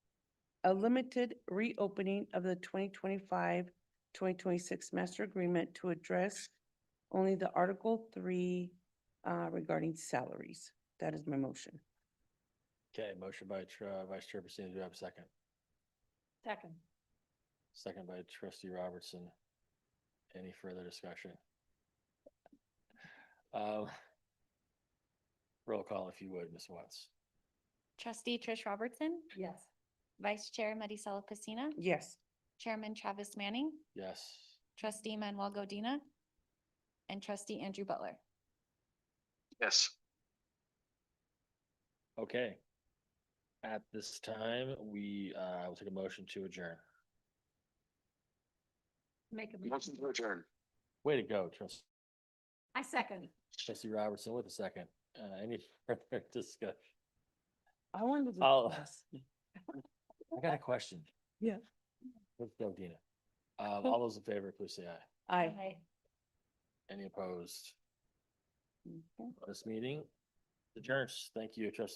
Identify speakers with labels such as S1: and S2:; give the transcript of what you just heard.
S1: a limited reopening of the 2025-2026 master agreement to address only the Article three uh, regarding salaries. That is my motion.
S2: Okay, motion by Tr- uh, Vice Chair Pacino, do I have a second?
S3: Second.
S2: Second by Trustee Robertson. Any further discussion? Um, Roll call if you would, Ms. Watts.
S4: Trustee Trish Robertson,
S3: Yes.
S4: Vice Chair Medisala Pacina,
S1: Yes,
S4: Chairman Travis Manning,
S2: Yes,
S4: Trustee Manuel Godina, and Trustee Andrew Butler.
S5: Yes.
S2: okay. At this time, we, uh, will take a motion to adjourn.
S3: Make a
S5: Motion
S3: motion.
S5: to adjourn.
S2: Way to go, Trustee.
S3: I second.
S2: Trustee Robertson with a second. Uh, any further discussion?
S1: I wanted to.
S2: I'll-
S1: ask.
S2: I got a question.
S1: Yeah.
S2: Let's go, Dina. Um, all those in favor, please say aye.
S1: Aye.
S2: Any opposed?
S1: Okay.
S2: This meeting adjourns. Thank you, trustee.